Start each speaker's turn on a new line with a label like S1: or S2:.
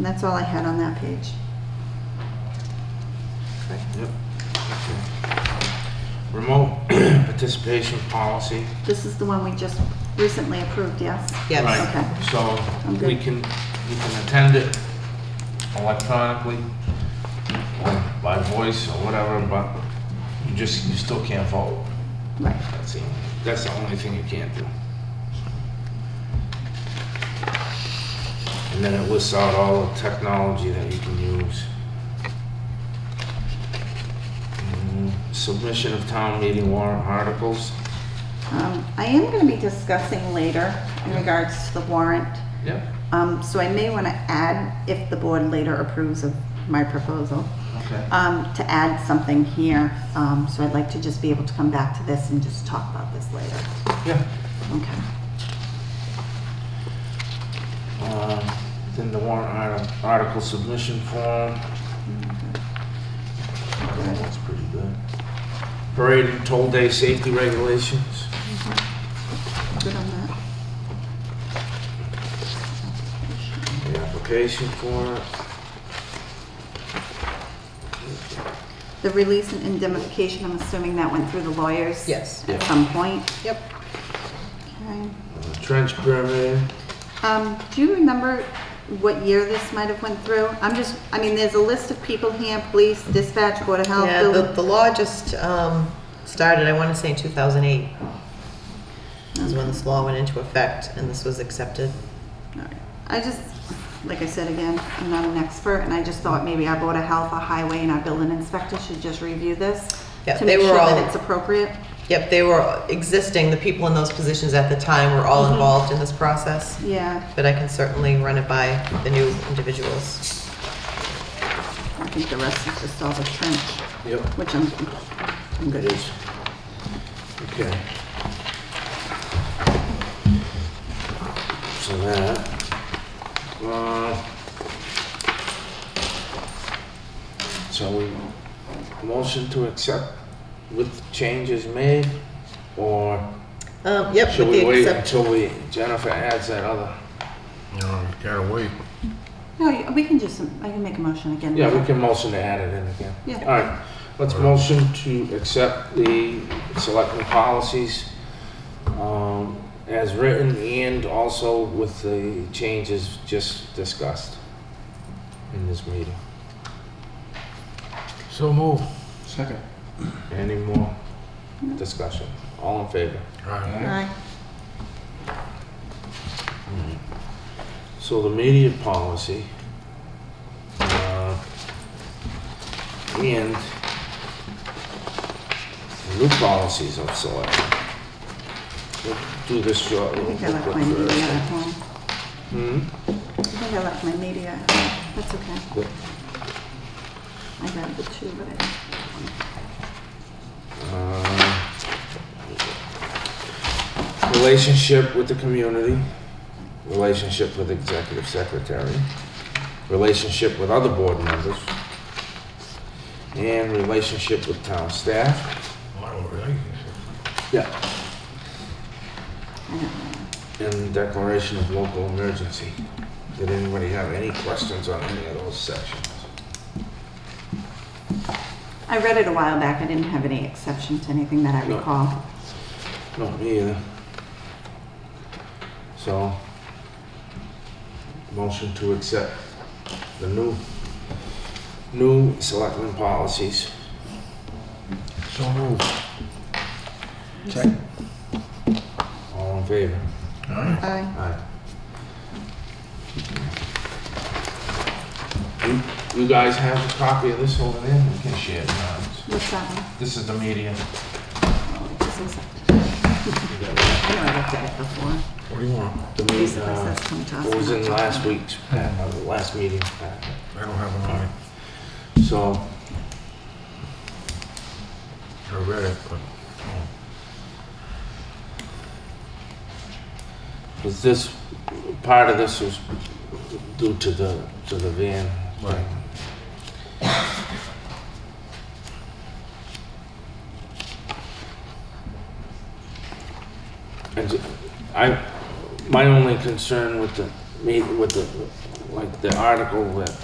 S1: And that's all I had on that page.
S2: Yep. Remote participation policy.
S1: This is the one we just recently approved, yes?
S2: Right.
S3: Yes.
S1: Okay. I'm
S2: So
S1: good.
S2: we can, we can attend it electronically, or by voice or whatever, but you just, you still can't vote.
S1: Right.
S2: That's the, that's the only thing you can't do. And then it lists out all the technology that you can use. Mm, Submission of town meeting warrant articles.
S1: Um, I am going to be discussing later in regards to the warrant.
S2: Yep.
S1: Um, so I may want to add, if the board later approves of my proposal,
S2: Okay.
S1: um, to add something here. Um, so I'd like to just be able to come back to this and just talk about this later.
S2: Yeah.
S1: Okay.
S2: Um, Then the warrant arti- article submission form. Oh, That's pretty good. Parade and toll day safety regulations.
S1: Good on that?
S2: The application for it.
S1: The release and indemnification, I'm assuming that went through the lawyers?
S3: Yes.
S1: At
S2: Yeah.
S1: some point?
S3: Yep.
S1: Okay.
S2: Uh, Trench permit.
S1: Um, do you remember what year this might have went through? I'm just, I mean, there's a list of people here, police, dispatch, Board of Health,
S3: Yeah, the,
S1: building.
S3: the law just, um, started, I wanna say in two thousand eight. Is when this law went into effect and this was accepted.
S1: All right. I just, like I said again, I'm not an expert, and I just thought maybe our Board of Health, our highway, and our building inspector should just review this
S3: Yeah,
S1: to
S3: they
S1: make
S3: were
S1: sure
S3: all-
S1: that it's appropriate.
S3: Yep, they were existing, the people in those positions at the time were all involved in this process,
S1: Yeah,
S3: but I can certainly run it by the new individuals.
S1: I think the rest is just all the trench,
S2: Yep.
S1: which I'm, I'm
S2: It
S1: good.
S2: is. Okay. So that, uh, so we, motion to accept with changes made, or
S3: Um, yep,
S2: should
S3: with
S2: we
S3: the
S2: wait
S3: exception,
S2: until we, Jennifer adds that other?
S4: No, you gotta wait.
S1: No, you- we can just, I can make a motion again.
S2: Yeah, we can motion to add it in again.
S1: Yeah.
S2: All right, let's motion to accept the selectmen policies um, as written and also with the changes just discussed in this meeting.
S4: So move. Second.
S2: Any more discussion? All in favor?
S1: All right.
S2: So the media policy, uh, and the new policies of select. We'll do this short.
S1: I
S2: little
S1: think I left my
S2: booklet
S1: media
S2: first.
S1: at home.
S2: Hmm?
S1: I think I left my media at home. That's okay.
S2: Good.
S1: I grabbed the two, but I,
S2: Uh, Relationship with the community, relationship with executive secretary, relationship with other board members, and relationship with town staff. Yeah. And declaration of local emergency. Did anybody have any questions on any of those sections?
S1: I read it a while back. I didn't have any exception to anything that I
S2: No.
S1: recall.
S2: No, me either. So, motion to accept the new, new selectmen policies.
S4: So move.
S2: All in favor?
S4: Alright.
S1: Aye.
S2: Aye. You, you guys have a copy of this over there? We can share it now.
S1: What's that one?
S2: This is the media.
S1: Oh, this is,
S2: You got
S1: I know I looked at it before.
S4: What do you want?
S2: The
S1: It
S2: media,
S1: Basically says
S2: uh,
S1: come to us.
S2: what was
S1: not
S2: in
S1: to
S2: last
S1: them.
S2: week's, pack- uh, the last meeting. packet.
S4: I don't have an eye.
S2: So,
S4: I read it, but.
S2: Was this, part of this was due to the, to the van?
S4: Right.
S2: And I, my only concern with the, me- with the, like the article that